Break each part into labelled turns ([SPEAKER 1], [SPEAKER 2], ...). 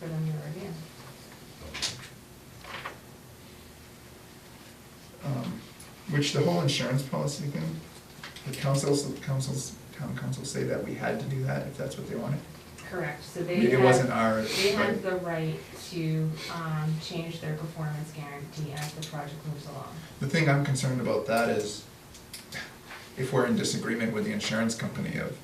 [SPEAKER 1] for them to review.
[SPEAKER 2] Um, Which the whole insurance policy thing, the councils, the councils, town councils say that we had to do that if that's what they wanted.
[SPEAKER 1] Correct, so they
[SPEAKER 2] It
[SPEAKER 1] have-
[SPEAKER 2] wasn't our,
[SPEAKER 1] They have
[SPEAKER 2] right.
[SPEAKER 1] the right to um, change their performance guarantee as the project moves along.
[SPEAKER 2] the thing I'm concerned about that is if we're in disagreement with the insurance company of,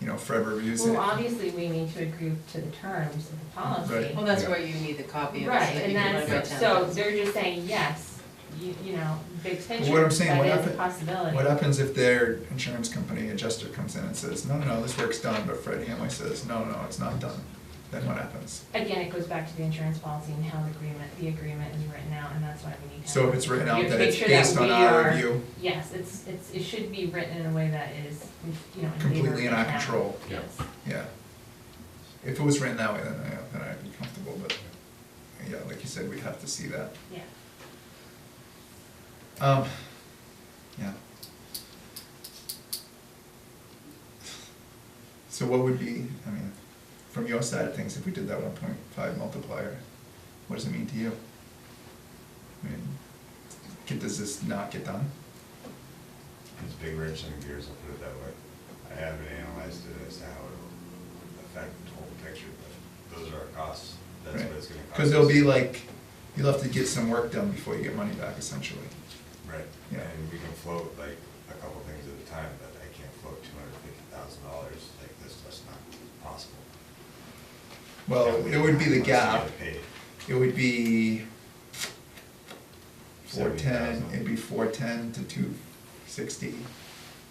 [SPEAKER 2] you know, forever
[SPEAKER 1] Well,
[SPEAKER 2] reusing. it.
[SPEAKER 1] obviously, we need to agree to the terms of the policy.
[SPEAKER 2] Right.
[SPEAKER 3] Well, that's where you need the copy of it
[SPEAKER 1] Right,
[SPEAKER 3] so that
[SPEAKER 1] and
[SPEAKER 3] you can run it by
[SPEAKER 1] that's,
[SPEAKER 3] town.
[SPEAKER 1] so they're just saying, yes, you, you know, big picture,
[SPEAKER 2] what I'm
[SPEAKER 1] that is
[SPEAKER 2] saying, what
[SPEAKER 1] a
[SPEAKER 2] happen-
[SPEAKER 1] possibility.
[SPEAKER 2] What happens if their insurance company adjuster comes in and says, no, no, no, this work's done, but Fred Hamway says, no, no, it's not done? Then what happens?
[SPEAKER 1] Again, it goes back to the insurance policy and how the agreement, the agreement is written out, and that's why we need to.
[SPEAKER 2] So if it's written out
[SPEAKER 1] make
[SPEAKER 2] that it's
[SPEAKER 1] sure that
[SPEAKER 2] based on
[SPEAKER 1] we
[SPEAKER 2] our
[SPEAKER 1] are-
[SPEAKER 2] review,
[SPEAKER 1] Yes, it's, it's, it should be written in a way that is, you know, in favor
[SPEAKER 2] Completely
[SPEAKER 1] of
[SPEAKER 2] in
[SPEAKER 1] the
[SPEAKER 2] our
[SPEAKER 1] town.
[SPEAKER 2] control.
[SPEAKER 4] Yeah.
[SPEAKER 1] Yes.
[SPEAKER 2] yeah. If it was written that way, then I, then I'd be comfortable, but, yeah, like you said, we'd have to see that.
[SPEAKER 1] Yeah.
[SPEAKER 2] Um, yeah. So what would be, I mean, from your side of things, if we did that one point five multiplier, what does it mean to you? I mean, get- does this not get done?
[SPEAKER 4] It's big wrench in the gears, I'll put it that way. I haven't analyzed it as to how it will affect the whole picture, but those are our costs. That's
[SPEAKER 2] Right.
[SPEAKER 4] what it's gonna cost.
[SPEAKER 2] Cause there'll be
[SPEAKER 4] us.
[SPEAKER 2] like, you'll have to get some work done before you get money back essentially.
[SPEAKER 4] Right,
[SPEAKER 2] Yeah.
[SPEAKER 4] and we can float like a couple things at a time, but I can't float two hundred fifty thousand dollars like this, that's not possible.
[SPEAKER 2] Well,
[SPEAKER 4] Yeah, we
[SPEAKER 2] it would be the
[SPEAKER 4] must get
[SPEAKER 2] gap,
[SPEAKER 4] it paid.
[SPEAKER 2] it would be four ten,
[SPEAKER 4] 70,000.
[SPEAKER 2] it'd be four ten to two sixty.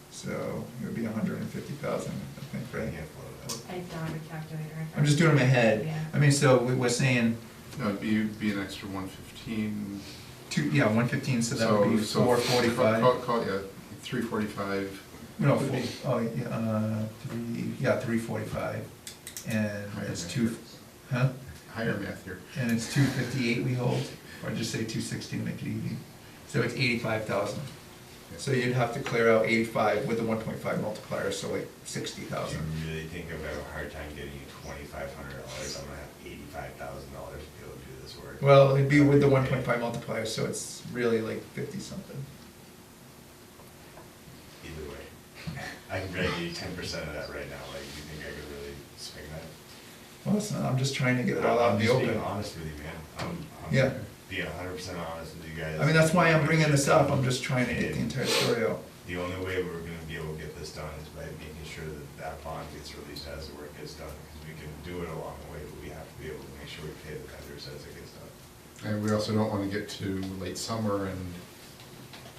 [SPEAKER 2] So it would be a hundred and fifty thousand, I think,
[SPEAKER 4] I
[SPEAKER 2] right?
[SPEAKER 4] can't float
[SPEAKER 1] I don't have a calculator. in front
[SPEAKER 2] I'm just doing it in my head.
[SPEAKER 1] Yeah.
[SPEAKER 2] I mean, so we- we're saying
[SPEAKER 5] No, it'd be, it'd be an extra one fifteen.
[SPEAKER 2] two, yeah, one fifteen, so that would be four
[SPEAKER 5] Call,
[SPEAKER 2] forty-five.
[SPEAKER 5] call, yeah, three forty-five.
[SPEAKER 2] No, four, oh, yeah, uh, three, yeah, three forty-five. And it's two, huh?
[SPEAKER 5] Higher math here.
[SPEAKER 2] And it's two fifty-eight we hold, or just say two sixty to make it easy. So it's eighty-five thousand. So you'd have to clear out eighty-five with the one point five multiplier, so like sixty
[SPEAKER 4] that. Do
[SPEAKER 2] thousand.
[SPEAKER 4] you really think I've got a hard time getting you twenty-five hundred dollars, I'm gonna have eighty-five thousand dollars to be able to do this work?
[SPEAKER 2] Well, it'd be with the
[SPEAKER 4] Okay.
[SPEAKER 2] one point five multiplier, so it's really like fifty-something.
[SPEAKER 4] Either way, I can drag you ten percent of that right now, like, you think I could really swing that?
[SPEAKER 2] Well, it's not, I'm just trying to get it all out in the
[SPEAKER 4] I'm just
[SPEAKER 2] open.
[SPEAKER 4] being honest with you, man, I'm, I'm
[SPEAKER 2] Yeah.
[SPEAKER 4] being hundred percent honest with you guys.
[SPEAKER 2] I mean, that's why I'm bringing this up, I'm just trying to get the entire story out.
[SPEAKER 4] The only way we're gonna be able to get this done is by making sure that that bond gets released as the work gets done, because we can do it along the way, but we have to be able to make sure we pay the vendors as it gets done.
[SPEAKER 5] And we also don't wanna get to late summer and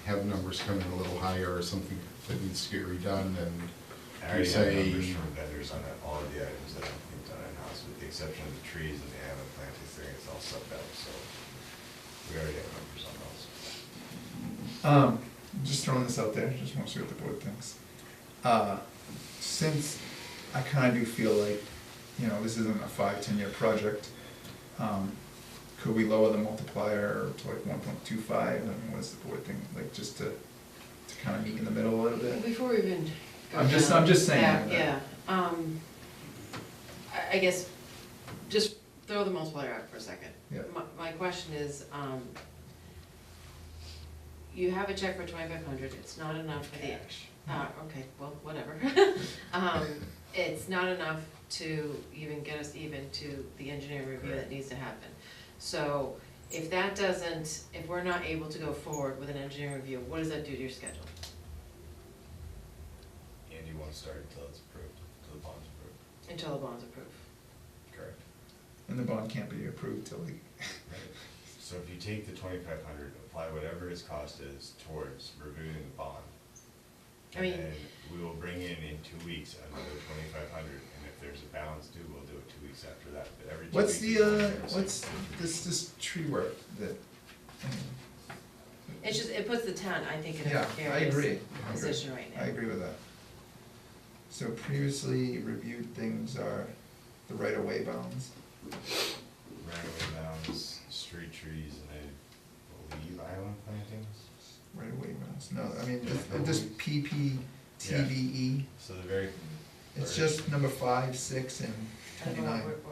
[SPEAKER 5] have numbers come in a little higher or something that needs to get redone
[SPEAKER 4] I
[SPEAKER 5] and you
[SPEAKER 4] already have
[SPEAKER 5] say.
[SPEAKER 4] numbers from vendors on all of the items that have been done in-house, with the exception of the trees and the animal planting thing, it's all subbed out, so we already have numbers on those.
[SPEAKER 2] Um, just throwing this out there, just wanna see what the board thinks. Uh, since I kinda do feel like, you know, this isn't a five, ten-year project, um, could we lower the multiplier to like one point two five, I mean, what's the board think, like, just to, to kinda meet in the middle a little bit?
[SPEAKER 3] Before we even go
[SPEAKER 2] I'm just-
[SPEAKER 3] down
[SPEAKER 2] I'm just saying
[SPEAKER 3] that,
[SPEAKER 2] that.
[SPEAKER 3] Yeah, um, I, I guess, just throw the multiplier out for a second.
[SPEAKER 2] Yeah.
[SPEAKER 3] My, my question is, um, you have a check for twenty-five hundred, it's not enough for the. Uh, okay, well, whatever. Um, it's not enough to even get us even to the engineering review that needs to happen. So if that doesn't, if we're not able to go forward with an engineering review, what does that do to your schedule?
[SPEAKER 4] And you won't start until it's approved, until the bond's approved.
[SPEAKER 3] Until the bond's approved.
[SPEAKER 4] Correct.
[SPEAKER 2] And the bond can't be approved till the,
[SPEAKER 4] So if you take the twenty-five hundred, apply whatever his cost is towards reviewing the bond.
[SPEAKER 3] I mean-
[SPEAKER 4] And then we will bring in in two weeks another twenty-five hundred, and if there's a balance due, we'll do it two weeks after that, but every two weeks.
[SPEAKER 2] what's the,
[SPEAKER 4] is
[SPEAKER 2] uh,
[SPEAKER 4] 100%.
[SPEAKER 2] what's this, this tree work that?
[SPEAKER 3] It's just, it puts the town, I think, in a
[SPEAKER 2] Yeah, I agree. I agree.
[SPEAKER 3] precarious position right now.
[SPEAKER 2] I agree with that. So previously reviewed things are the right-of-way bounds.
[SPEAKER 4] Right-of-way bounds, street trees, and I believe island plantings.
[SPEAKER 2] Right-of-way bounds, no, I mean, this- this PPTVE,
[SPEAKER 4] So the very.
[SPEAKER 2] E. it's just number five, six, and
[SPEAKER 3] I don't know
[SPEAKER 2] twenty-nine.
[SPEAKER 3] what we're-
[SPEAKER 4] Uh,